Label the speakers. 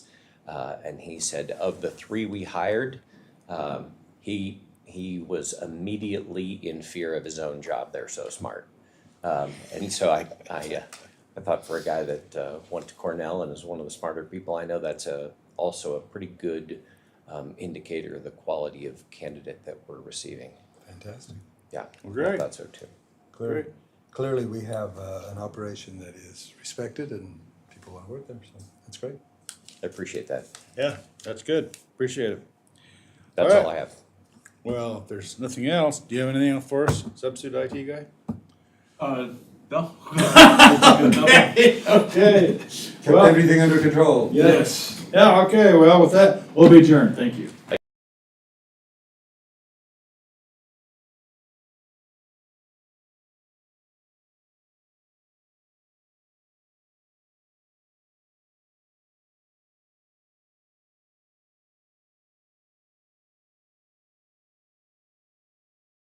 Speaker 1: Uh, and he said of the three we hired, um, he, he was immediately in fear of his own job. They're so smart. Um, and so I, I, uh, I thought for a guy that, uh, went to Cornell and is one of the smarter people I know, that's a, also a pretty good, um, indicator of the quality of candidate that we're receiving.
Speaker 2: Fantastic.
Speaker 1: Yeah.
Speaker 3: Well, great.
Speaker 1: I thought so too.
Speaker 2: Clearly,
Speaker 3: Great.
Speaker 2: clearly we have uh, an operation that is respected and people want to work there, so that's great.
Speaker 1: I appreciate that.
Speaker 3: Yeah, that's good. Appreciate it.
Speaker 1: That's
Speaker 3: All
Speaker 1: all
Speaker 3: right.
Speaker 1: I have.
Speaker 3: Well, if there's nothing else, do you have anything else for us, substitute IT guy?
Speaker 4: Uh, no.
Speaker 3: Okay.
Speaker 2: everything under control.
Speaker 3: Yes. Yeah, okay, well, with that, we'll be adjourned. Thank you.